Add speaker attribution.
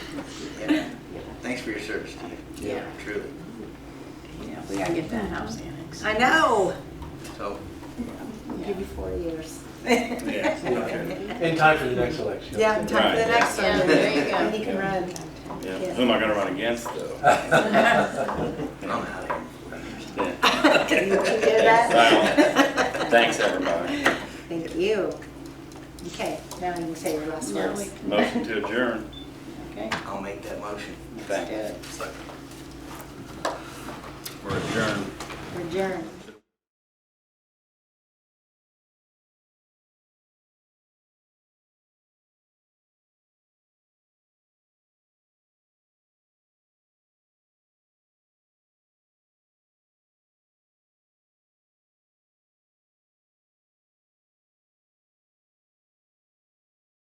Speaker 1: for your service to you.
Speaker 2: Yeah.
Speaker 1: Truly.
Speaker 2: Yeah, we gotta get that house annexed.
Speaker 3: I know.
Speaker 1: So,
Speaker 2: Yeah.
Speaker 3: Give you four years.
Speaker 4: In time for the next election.
Speaker 3: Yeah, time for
Speaker 5: Right,
Speaker 3: the
Speaker 5: yeah.
Speaker 3: next one.
Speaker 2: Yeah, there you go.
Speaker 3: And he can run.
Speaker 5: Yeah.
Speaker 3: Yeah.
Speaker 5: Who am I gonna run against though?
Speaker 1: I'm out of
Speaker 5: Yeah.
Speaker 3: Did you hear that?
Speaker 5: Thanks, everybody.
Speaker 3: Thank you. Okay, now you can say your last
Speaker 2: Now we
Speaker 3: words.
Speaker 2: can-
Speaker 5: Motion to adjourn.
Speaker 2: Okay,
Speaker 1: here. I'll make that motion.
Speaker 2: let's do
Speaker 5: Thanks.
Speaker 2: it.
Speaker 1: Second.
Speaker 5: We're adjourned.
Speaker 3: Adjourn.